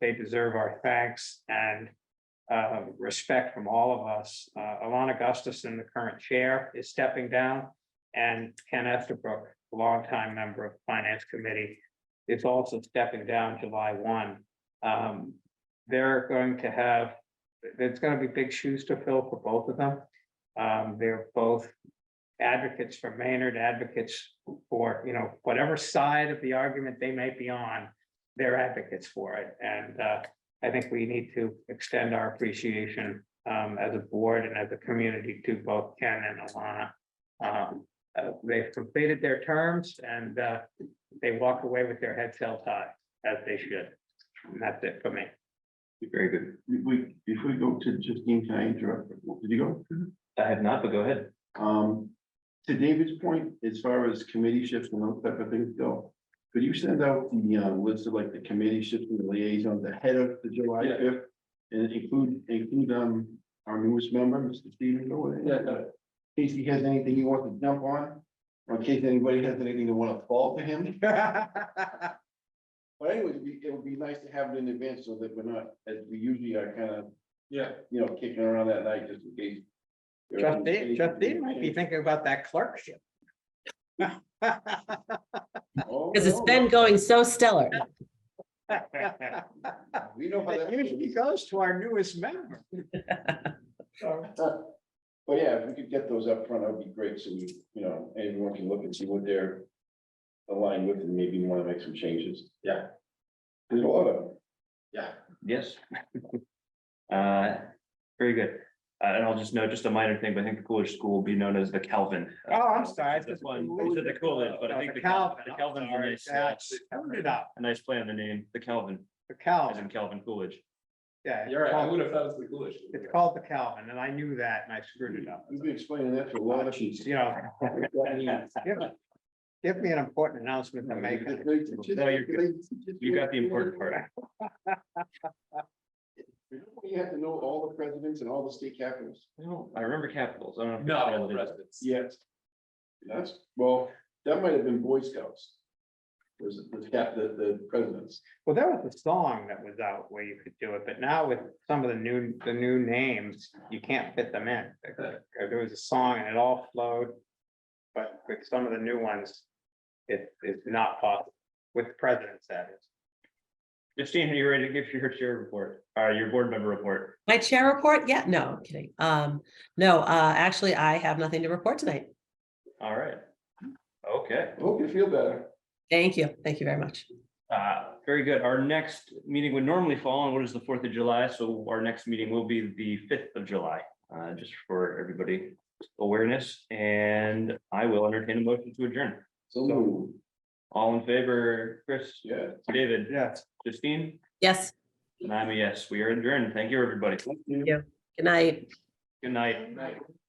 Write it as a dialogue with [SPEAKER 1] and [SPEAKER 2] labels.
[SPEAKER 1] They deserve our thanks and uh, respect from all of us. Uh, Alana Gustafson, the current chair, is stepping down. And Ken Estabrook, a longtime member of the Finance Committee, is also stepping down July one. Um, They're going to have, it's gonna be big shoes to fill for both of them. Um, They're both advocates for Maynard, advocates for, you know, whatever side of the argument they may be on, they're advocates for it. And uh, I think we need to extend our appreciation um, as a board and as a community to both Ken and Alana. Um, uh, They've completed their terms and uh, they walk away with their heads held high, as they should. And that's it for me.
[SPEAKER 2] Very good.
[SPEAKER 3] If we, if we go to Justine, can I interrupt? Did you go?
[SPEAKER 2] Mm-hmm. I have not, but go ahead.
[SPEAKER 3] Um, to David's point, as far as committee shifts and those type of things go, could you send out the, uh, list of like the committee shifts and the liaisons ahead of the July
[SPEAKER 2] Yeah.
[SPEAKER 3] fifth? And include, include, um, our newest member, Mr. Stephen Doyle.
[SPEAKER 2] Yeah, uh, yeah.
[SPEAKER 3] Casey has anything you want to jump on, or in case anybody has anything they want to fall to him. But anyway, it'd be- it would be nice to have it in advance so that we're not, as we usually are kind of,
[SPEAKER 2] Yeah.
[SPEAKER 3] you know, kicking around that night just in case.
[SPEAKER 1] Justine, Justine might be thinking about that clerkship.
[SPEAKER 3] Oh,
[SPEAKER 4] Because it's been going so stellar.
[SPEAKER 3] We know how
[SPEAKER 1] It
[SPEAKER 3] that.
[SPEAKER 1] usually goes to our newest member. So,
[SPEAKER 3] But yeah, if we could get those up front, that would be great, so we, you know, everyone can look and see what they're aligned with, and maybe want to make some changes.
[SPEAKER 2] Yeah.
[SPEAKER 3] There's a lot of, them.
[SPEAKER 2] Yeah. Yes. Uh, very good. Uh, and I'll just note just a minor thing, but I think the Coolidge School will be known as the Calvin.
[SPEAKER 1] Oh, I'm sorry.
[SPEAKER 2] This Uh, one, they said the Coolidge, but
[SPEAKER 1] Oh,
[SPEAKER 2] I think the Calvin, the Calvin's a nice, uh,
[SPEAKER 1] Turned it up,
[SPEAKER 2] a nice play on the name, the Calvin,
[SPEAKER 1] the
[SPEAKER 2] as in
[SPEAKER 1] Calvin,
[SPEAKER 2] Calvin Coolidge.
[SPEAKER 1] yeah.
[SPEAKER 5] You're right, I would have thought it was the Coolidge.
[SPEAKER 1] It's called the Calvin, and I knew that, and I screwed it up.
[SPEAKER 3] we've been explaining that to a lot of people.
[SPEAKER 1] You know. give me- Give me an important announcement to make.
[SPEAKER 2] No, you're You got the important part.
[SPEAKER 3] You have to know all the presidents and all the state capitals.
[SPEAKER 2] No, I remember capitals. I don't know. if it's
[SPEAKER 5] Not all
[SPEAKER 2] all
[SPEAKER 5] the
[SPEAKER 2] it is.
[SPEAKER 5] residents.
[SPEAKER 3] Yes. That's, well, that might have been Boy Scouts. Was, was cap, the, the presidents.
[SPEAKER 1] Well, there was a song that was out where you could do it, but now with some of the new, the new names, you can't fit them in. There there was a song and it all flowed. But with some of the new ones, it, it's not possible, with presidents that is.
[SPEAKER 2] Justine, are you ready to give your chair report, uh, your board member report?
[SPEAKER 4] My chair report? Yeah, no, I'm kidding. Um, no, uh, actually, I have nothing to report tonight.
[SPEAKER 2] All right. Okay.
[SPEAKER 3] Hope you feel better.
[SPEAKER 4] Thank you. Thank you very much.
[SPEAKER 2] Uh, very good. Our next meeting would normally fall on what is the Fourth of July, so our next meeting will be the fifth of July, uh, just for everybody awareness, and I will entertain a motion to adjourn.
[SPEAKER 3] So,
[SPEAKER 2] All in favor, Chris,
[SPEAKER 3] yeah.
[SPEAKER 2] David,
[SPEAKER 1] Yes.
[SPEAKER 2] Justine,
[SPEAKER 4] Yes,
[SPEAKER 2] and I'm a yes. We are adjourned. Thank you, everybody.
[SPEAKER 4] good night.
[SPEAKER 2] Good night.